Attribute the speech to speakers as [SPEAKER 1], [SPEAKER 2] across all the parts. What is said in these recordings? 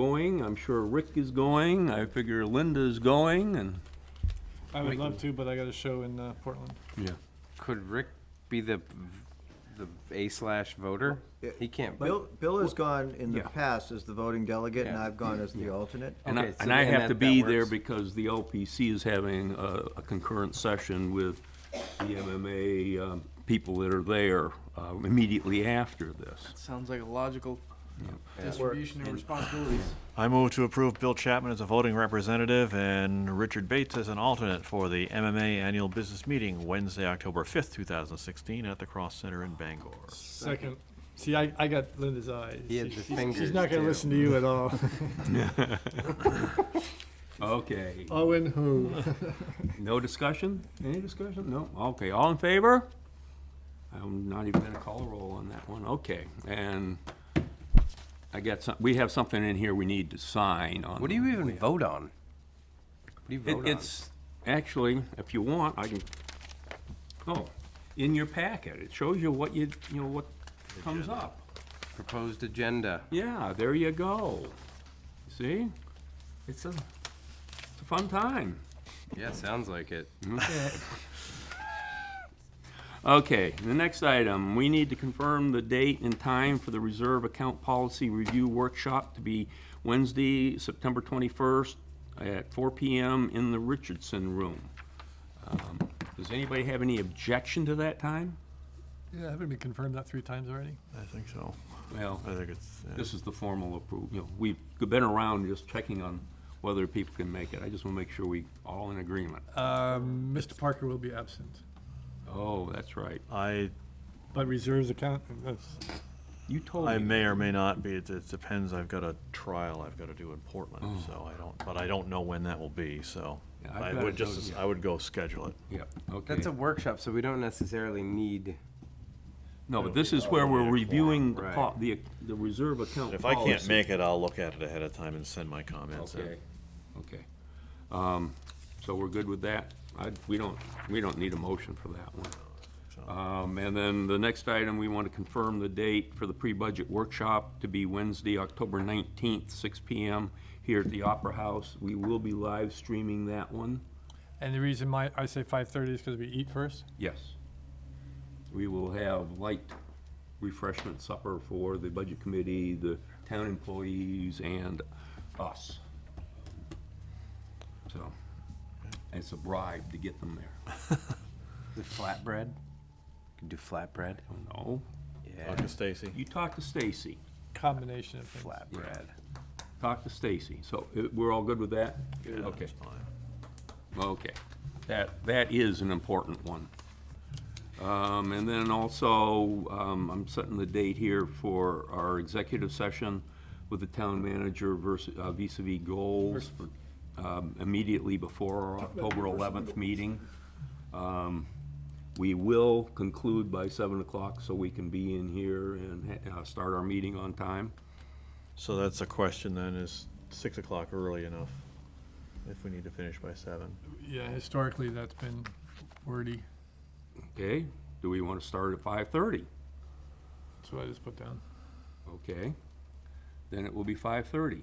[SPEAKER 1] going, I'm sure Rick is going, I figure Linda's going, and,
[SPEAKER 2] I would love to, but I got a show in uh, Portland.
[SPEAKER 1] yeah.
[SPEAKER 3] Could Rick be the the A slash voter?
[SPEAKER 4] Yeah.
[SPEAKER 3] He can't.
[SPEAKER 4] Bill, Bill has gone in the
[SPEAKER 1] Yeah.
[SPEAKER 4] past as the voting delegate, and
[SPEAKER 3] Yeah.
[SPEAKER 4] I've gone as the alternate.
[SPEAKER 1] And I,
[SPEAKER 3] Okay, so
[SPEAKER 1] and I
[SPEAKER 3] then
[SPEAKER 1] have
[SPEAKER 3] that-
[SPEAKER 1] to
[SPEAKER 3] that
[SPEAKER 1] be there
[SPEAKER 3] works.
[SPEAKER 1] because the LPC is having a a concurrent session with the MMA um, people that are there uh, immediately after this.
[SPEAKER 5] Sounds like a logical distribution of responsibilities.
[SPEAKER 6] I move to approve Bill Chapman as a voting representative and Richard Bates as an alternate for the MMA Annual Business Meeting Wednesday, October 5th, 2016, at the Cross Center in Bangor.
[SPEAKER 2] Second. See, I, I got Linda's eyes.
[SPEAKER 3] He had the
[SPEAKER 2] She's-
[SPEAKER 3] fingers,
[SPEAKER 2] She's not gonna
[SPEAKER 3] too.
[SPEAKER 2] listen to you at all.
[SPEAKER 1] Okay,
[SPEAKER 2] Owen Oh, who?
[SPEAKER 1] no discussion? Any discussion? No? Okay, all in favor? I'm not even gonna call a roll on that one, okay. And I got some, we have something in here we need to sign on.
[SPEAKER 3] What do you even vote on? What do you
[SPEAKER 1] It-
[SPEAKER 3] vote on?
[SPEAKER 1] It's, actually, if you want, I can, oh, in your packet, it shows you what you, you know, what comes up.
[SPEAKER 3] Proposed agenda.
[SPEAKER 1] Yeah, there you go. See? It's a, it's a fun time.
[SPEAKER 3] Yeah, sounds like it.
[SPEAKER 1] Okay, the next item, we need to confirm the date and time for the Reserve Account Policy Review Workshop to be Wednesday, September 21st at 4 PM in the Richardson Room. Um, Does anybody have any objection to that time?
[SPEAKER 2] Yeah, haven't we confirmed that three times already?
[SPEAKER 6] I think so.
[SPEAKER 1] Well,
[SPEAKER 6] I think it's, uh,
[SPEAKER 1] this is the formal approval, you know, we've been around just checking on whether people can make it. I just want to make sure we all in agreement.
[SPEAKER 2] Um, Mr. Parker will be absent,
[SPEAKER 1] Oh, that's right.
[SPEAKER 6] I,
[SPEAKER 2] but reserves account, that's,
[SPEAKER 1] You told
[SPEAKER 6] I
[SPEAKER 1] me.
[SPEAKER 6] may or may not be, it it depends, I've got a trial I've got to do in Portland, so I don't, but I don't know when that will be, so.
[SPEAKER 1] Mm. Yeah, I've
[SPEAKER 6] I
[SPEAKER 1] got
[SPEAKER 6] would
[SPEAKER 1] it
[SPEAKER 6] just,
[SPEAKER 1] noted.
[SPEAKER 6] I would go schedule it.
[SPEAKER 1] Yeah, okay.
[SPEAKER 3] That's a workshop, so we don't necessarily need.
[SPEAKER 1] No, but this is where we're reviewing the, po-
[SPEAKER 3] Right.
[SPEAKER 1] the, the reserve account
[SPEAKER 6] If I can't
[SPEAKER 1] policy.
[SPEAKER 6] make it, I'll look at it ahead of time and send my comments in.
[SPEAKER 1] Oh, Okay, okay. Um, so we're good with that? I, we don't, we don't need a motion for that one. Um, and then the next item, we want to confirm the date for the pre-budget workshop to be Wednesday, October nineteenth, six P M. Here at the Opera House. We will be live streaming that one.
[SPEAKER 2] and the reason my, I say five thirty is because we eat first.
[SPEAKER 1] Yes. We will have light refreshment supper for the budget committee, the town employees, and us. So, it's a bribe to get them there.
[SPEAKER 3] The flatbread? Can do flatbread?
[SPEAKER 1] I don't know.
[SPEAKER 3] Yeah.
[SPEAKER 6] Dr. Stacy?
[SPEAKER 1] You talk to Stacy.
[SPEAKER 2] Combination of things.
[SPEAKER 3] Flatbread.
[SPEAKER 1] Talk to Stacy. So, uh, we're all good with that? Okay.
[SPEAKER 6] That's fine.
[SPEAKER 1] Okay, that, that is an important one. Um, and then also, um, I'm setting the date here for our executive session with the town manager versus, uh, vis-à-vis goals for, um, immediately before our October eleventh meeting. Um, we will conclude by seven o'clock so we can be in here and, ha- uh, start our meeting on time.
[SPEAKER 6] So that's a question then, is six o'clock early enough if we need to finish by seven?
[SPEAKER 2] Yeah, historically, that's been wordy,
[SPEAKER 1] Okay, do we wanna start at five-thirty?
[SPEAKER 2] that's what I just put down.
[SPEAKER 1] Okay, then it will be five-thirty.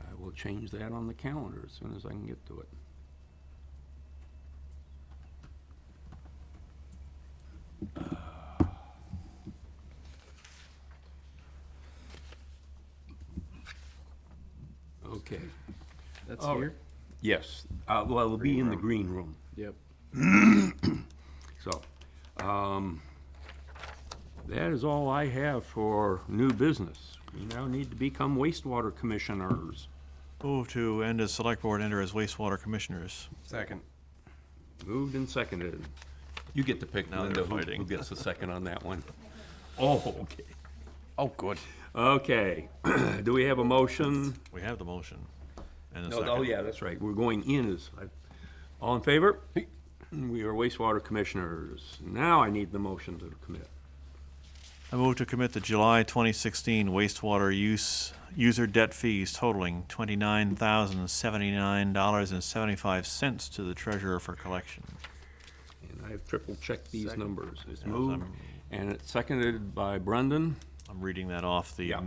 [SPEAKER 1] I will change that on the calendar as soon as I can get to it. Okay,
[SPEAKER 5] That's
[SPEAKER 1] Oh.
[SPEAKER 5] here.
[SPEAKER 1] yes, uh, well, it'll be in the green room.
[SPEAKER 5] Yep.
[SPEAKER 1] So, um, that is all I have for new business. We now need to become wastewater commissioners.
[SPEAKER 6] Move to end as select board, enter as wastewater commissioners.
[SPEAKER 3] Second.
[SPEAKER 1] Moved and seconded. You get to pick
[SPEAKER 6] Now
[SPEAKER 1] Linda,
[SPEAKER 6] they're
[SPEAKER 1] who
[SPEAKER 6] fighting.
[SPEAKER 1] who gets the second on that one. Oh, okay.
[SPEAKER 3] Oh, good.
[SPEAKER 1] Okay, do we have a motion?
[SPEAKER 6] We have the motion. and a
[SPEAKER 1] No, Oh,
[SPEAKER 6] second.
[SPEAKER 1] yeah, that's right, we're going in as, all in favor? We are wastewater commissioners. Now I need the motion to commit.
[SPEAKER 6] I move to commit the July 2016 wastewater use, user debt fees totaling $29,079.75 to the treasurer for collection.
[SPEAKER 1] And I've triple checked these numbers. It's moved, and it's seconded by Brendan.
[SPEAKER 7] I'm reading that off the
[SPEAKER 6] Yeah.